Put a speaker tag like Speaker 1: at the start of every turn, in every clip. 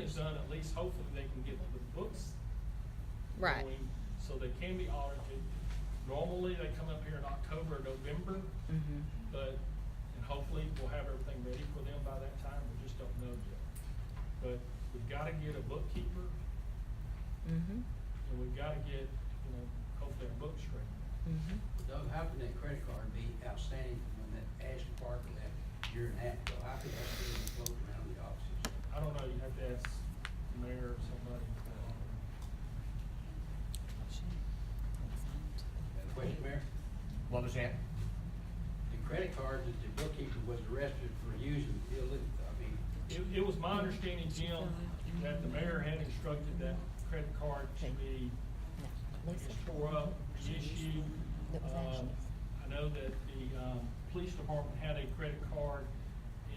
Speaker 1: damage done, at least hopefully they can get the books
Speaker 2: Right.
Speaker 1: going So they can be audited. Normally, they come up here in October, November,
Speaker 2: Mhm.
Speaker 1: but, and hopefully we'll have everything ready for them by that time, we just don't know yet. But we've gotta get a bookkeeper,
Speaker 2: Mhm.
Speaker 1: and we've gotta get, you know, hopefully our books straight.
Speaker 2: Mhm.
Speaker 3: Doug, how can that credit card be outstanding from when that Ashley Parker left a year and a half ago? How could that still be floating around the offices?
Speaker 1: I don't know, you have to ask the mayor or somebody.
Speaker 3: Got a Question, Mayor?
Speaker 4: What was that?
Speaker 3: The credit card that the bookkeeper was arrested for using illit, I mean,
Speaker 1: It, it was my understanding, Jim, that the mayor had instructed that credit card to be
Speaker 2: No.
Speaker 1: It's tore up, reissued.
Speaker 2: That was
Speaker 1: Um,
Speaker 2: actions.
Speaker 1: I know that the, um, police department had a credit card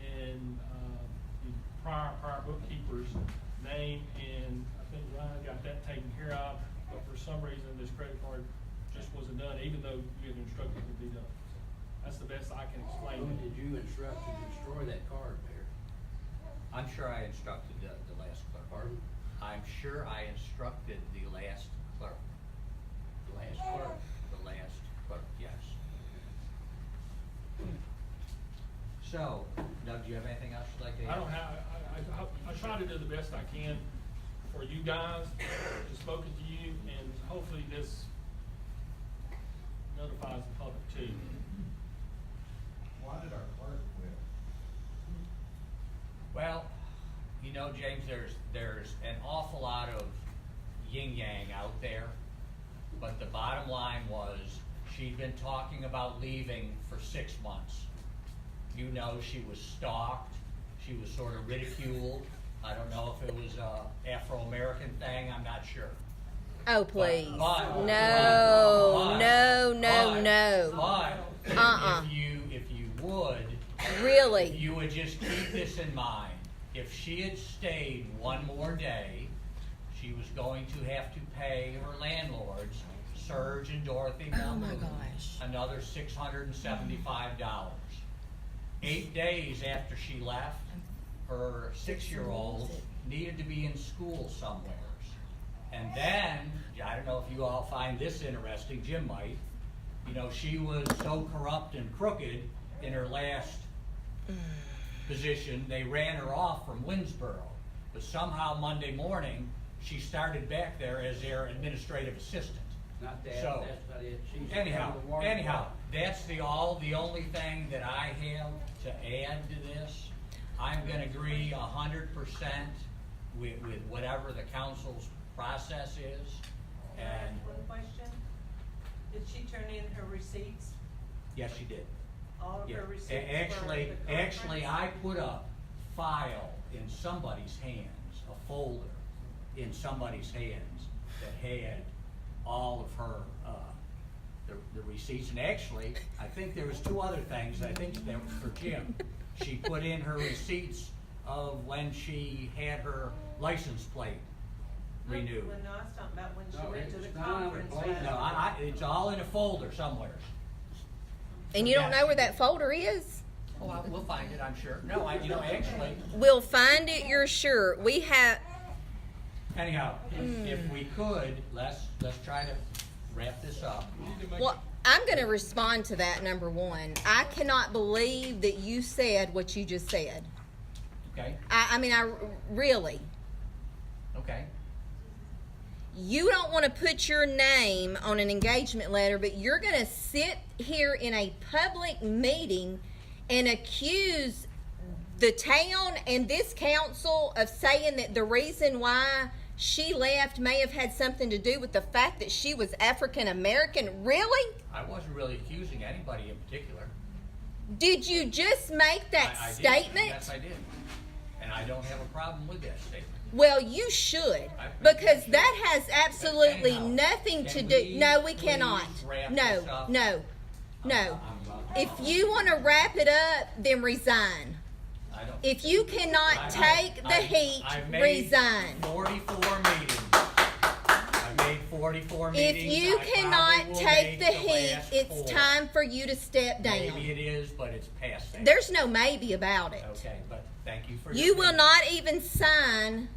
Speaker 1: in, um, the prior, prior bookkeeper's name, and I think Ryan got that taken care of, but for some reason, this credit card just wasn't done, even though you had instructed it to be done. So That's the best I can explain
Speaker 3: who
Speaker 1: it.
Speaker 3: did you instruct to destroy that card, Mayor?
Speaker 4: I'm sure I instructed the, the last clerk.
Speaker 3: Pardon?
Speaker 4: I'm sure I instructed the last clerk,
Speaker 3: The last clerk?
Speaker 4: the last clerk, yes. So, Doug, do you have anything else you'd like to add?
Speaker 1: I don't have, I, I, I try to do the best I can for you guys, to spoken to you, and hopefully this notifies the public too.
Speaker 5: Why did our clerk quit?
Speaker 4: Well, you know, James, there's, there's an awful lot of yin yang out there. But the bottom line was, she'd been talking about leaving for six months. You know, she was stalked, she was sort of ridiculed. I don't know if it was a Afro-American thing, I'm not sure.
Speaker 2: Oh,
Speaker 4: But-
Speaker 2: please.
Speaker 4: but-
Speaker 2: No,
Speaker 4: but-
Speaker 2: no, no,
Speaker 4: but-
Speaker 2: no.
Speaker 4: But,
Speaker 2: Uh-uh.
Speaker 4: if you, if you would,
Speaker 2: Really?
Speaker 4: you would just keep this in mind. If she had stayed one more day, she was going to have to pay her landlords, Serge and Dorothy
Speaker 2: Oh my
Speaker 4: Muldoon,
Speaker 2: gosh.
Speaker 4: another six hundred and seventy-five dollars. Eight days after she left, her six-year-old needed to be in school somewheres. And then, I don't know if you all find this interesting, Jim might, you know, she was so corrupt and crooked in her last position, they ran her off from Winsboro. But somehow Monday morning, she started back there as their administrative assistant.
Speaker 3: Not that,
Speaker 4: So,
Speaker 3: that's not it. She's a
Speaker 4: Anyhow,
Speaker 3: criminal water
Speaker 4: anyhow,
Speaker 3: fraud.
Speaker 4: that's the all, the only thing that I have to add to this. I'm gonna agree a hundred percent with, with whatever the council's process is.
Speaker 6: Can I
Speaker 4: And,
Speaker 6: ask one question? Did she turn in her receipts,
Speaker 4: yes, she did.
Speaker 6: all of
Speaker 4: Yeah.
Speaker 6: her receipts
Speaker 4: A-
Speaker 6: for
Speaker 4: Actually,
Speaker 6: the conference?
Speaker 4: actually, I put a file in somebody's hands, a folder in somebody's hands that had all of her, uh, the, the receipts. And actually, I think there was two other things, I think that was for Jim. She put in her receipts of when she had her license plate
Speaker 6: No,
Speaker 4: renewed.
Speaker 6: well, No, I was talking about when she
Speaker 3: No,
Speaker 6: went
Speaker 3: it
Speaker 6: to the
Speaker 3: was not
Speaker 6: conference.
Speaker 3: blatant.
Speaker 4: No,
Speaker 6: last-
Speaker 4: I, I, it's all in a folder somewhere.
Speaker 2: And you don't
Speaker 4: Yes.
Speaker 2: know where that folder is?
Speaker 4: Oh, I- we'll find it, I'm sure. No, I, you know, actually,
Speaker 2: We'll find it, you're sure. We have,
Speaker 4: Anyhow,
Speaker 2: Hmm.
Speaker 4: if- if we could, let's, let's try to wrap this up.
Speaker 2: well, I'm going to respond to that, number one. I cannot believe that you said what you just said.
Speaker 4: Okay,
Speaker 2: I, I mean, I really.
Speaker 4: okay.
Speaker 2: you don't want to put your name on an engagement letter, but you're going to sit here in a public meeting and accuse the town and this council of saying that the reason why she left may have had something to do with the fact that she was African American. Really?
Speaker 4: I wasn't really accusing anybody in particular.
Speaker 2: Did you just make that
Speaker 4: I- I did.
Speaker 2: statement?
Speaker 4: Yes, I did. And I don't have a problem with that statement.
Speaker 2: Well, you should
Speaker 4: I-
Speaker 2: because that has absolutely
Speaker 4: Anyhow,
Speaker 2: nothing to
Speaker 4: can
Speaker 2: do.
Speaker 4: we
Speaker 2: No, we
Speaker 4: please
Speaker 2: cannot.
Speaker 4: wrap this
Speaker 2: No,
Speaker 4: up?
Speaker 2: no, no.
Speaker 4: I'm- I'm-
Speaker 2: If you want to wrap it up, then resign.
Speaker 4: I don't-
Speaker 2: If you
Speaker 4: I- I-
Speaker 2: cannot take the
Speaker 4: I-
Speaker 2: heat,
Speaker 4: I made
Speaker 2: resign.
Speaker 4: Forty-four meetings. I made forty-four
Speaker 2: If
Speaker 4: meetings.
Speaker 2: you
Speaker 4: I probably
Speaker 2: cannot
Speaker 4: will
Speaker 2: take
Speaker 4: make
Speaker 2: the heat,
Speaker 4: last four.
Speaker 2: it's time for you to step
Speaker 4: Maybe
Speaker 2: down.
Speaker 4: it is, but it's past that.
Speaker 2: There's no maybe about it.
Speaker 4: Okay, but thank you for. your
Speaker 2: You will
Speaker 4: opinion.
Speaker 2: not even sign